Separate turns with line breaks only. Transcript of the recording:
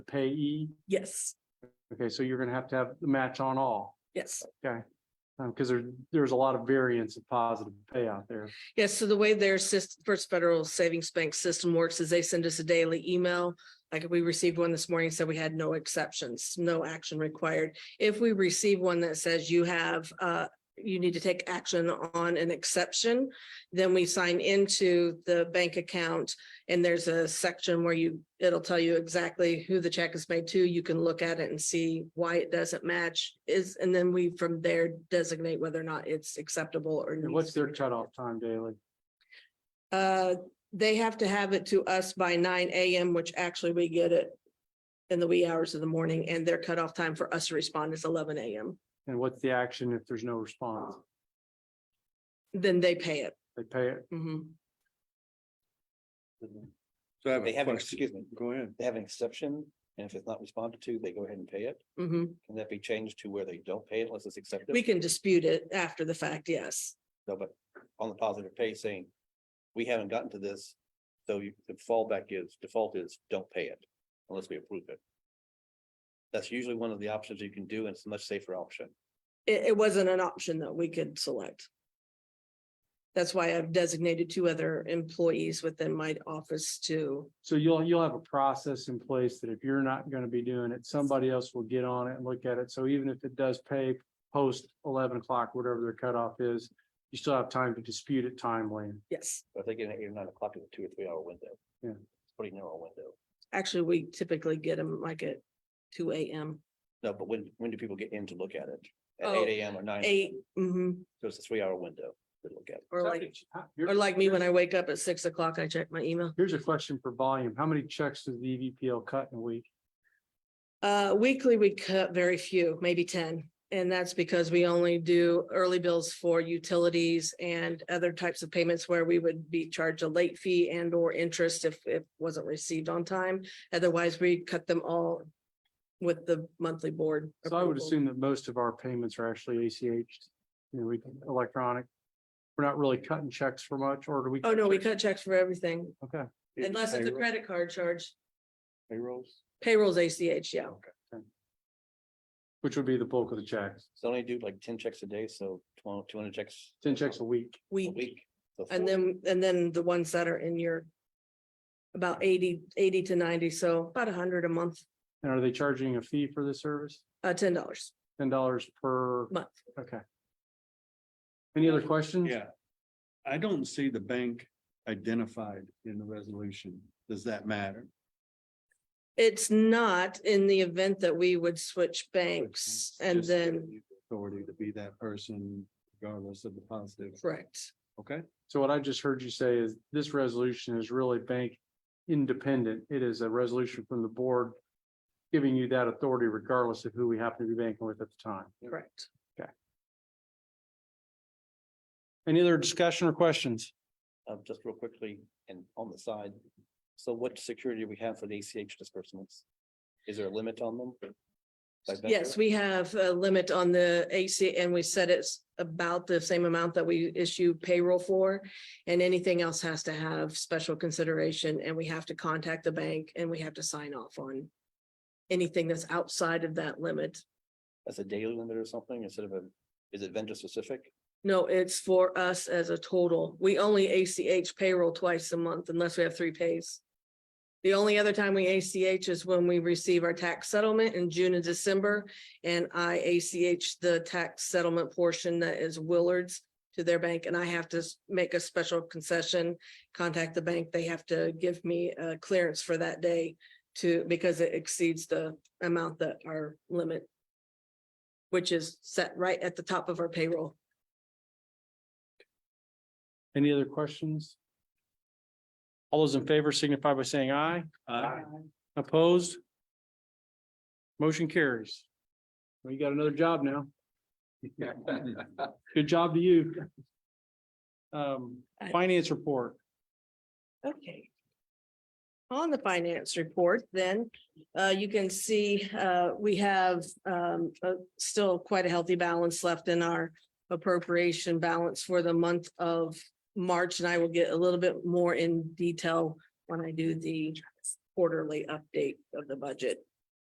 the payee?
Yes,
Okay, so you're gonna have to have the match on all,
yes.
um, because there, there's a lot of variance of positive pay out there.
Yes, so the way their system, First Federal Savings Bank system works is they send us a daily email. Like we received one this morning, said we had no exceptions, no action required. If we receive one that says you have, uh, you need to take action on an exception, then we sign into the bank account and there's a section where you, it'll tell you exactly who the check is made to. You can look at it and see why it doesn't match is, and then we from there designate whether or not it's acceptable or.
And
needs
what's
to
their
be-
cutoff time daily?
uh, they have to have it to us by nine AM, which actually we get it in the wee hours of the morning, and their cutoff time for us to respond is eleven AM.
And what's the action if there's no response?
Then they pay it.
They pay it.
Mhm.
So I have
They
a
have, an-
question.
excuse me,
Go ahead.
they have an exception, and if it's not responded to, they go ahead and pay it.
Mhm.
Can that be changed to where they don't pay it unless it's accepted?
We can dispute it after the fact, yes.
No, but on the positive pay saying, we haven't gotten to this, so you, the fallback is, default is, don't pay it unless we approve it. That's usually one of the options you can do, and it's a much safer option.
It, it wasn't an option that we could select. That's why I've designated two other employees within my office to,
So you'll, you'll have a process in place that if you're not gonna be doing it, somebody else will get on it and look at it. So even if it does pay post eleven o'clock, whatever their cutoff is, you still have time to dispute it timely.
yes.
But if they get an eight or nine o'clock in a two or three hour window.
Yeah.
It's a Pretty narrow window.
Actually, we typically get them like at two AM,
No, but when, when do people get in to look at it? At
Oh,
eight AM or nine?
eight, mhm,
So it's a three hour window to look at it.
or like. Or like me, when I wake up at six o'clock, I check my email.
Here's a question for volume. How many checks does the E EVPL cut in a week?
Uh, weekly, we cut very few, maybe ten. And that's because we only do early bills for utilities and other types of payments where we would be charged a late fee and or interest if it wasn't received on time. Otherwise, we cut them all with the monthly board.
So I would
approval.
assume that most of our payments are actually ACH, you know, we can electronic. We're not really cutting checks for much, or do we?
Oh, no, we cut checks for everything
Okay,
unless it's a
Payroll-
credit card charge.
Payrolls.
Payrolls ACH, yeah.
which would be the bulk of the checks,
So I only do like ten checks a day, so two hundred checks.
ten checks a week.
A
We
week. so
And
four.
then, and then the ones that are in your about 80, 80 to ninety, so about hundred a month,
And are they charging a fee for this service?
uh, ten dollars
Ten dollars per,
a month.
okay. Any other questions?
Yeah. I don't see the bank identified in the resolution. Does that matter?
It's not in the event that we would switch banks and
Just give
then,
you the Authority to be that person regardless of the positive.
correct,
Okay,
So what I just heard you say is this resolution is really bank independent. It is a resolution from the board. Giving you that authority regardless of who we happen to be banking with at the time.
correct.
Any other discussion or questions?
Um, just real quickly and on the side. So what security do we have for the ACH disbursements? Is there a limit on them? By vendor?
Yes, we have a limit on the AC and we said it's about the same amount that we issue payroll for. And anything else has to have special consideration and we have to contact the bank and we have to sign off on anything that's outside of that limit.
As a daily limit or something instead of a, is it vendor specific?
No, it's for us as a total. We only ACH payroll twice a month unless we have three pays. The only other time we ACH is when we receive our tax settlement in June and December. And I ACH the tax settlement portion that is Willard's to their bank and I have to s- make a special concession, contact the bank. They have to give me a clearance for that day to, because it exceeds the amount that our limit, which is set right at the top of our payroll.
Any other questions? All those in favor signify by saying aye.
Aye.
Opposed? Motion carries. Well, you got another job now. Good job to you. Um, finance report.
Okay. On the finance report, then, uh, you can see, uh, we have, um, uh, still quite a healthy balance left in our appropriation balance for the month of March, and I will get a little bit more in detail when I do the quarterly update of the budget.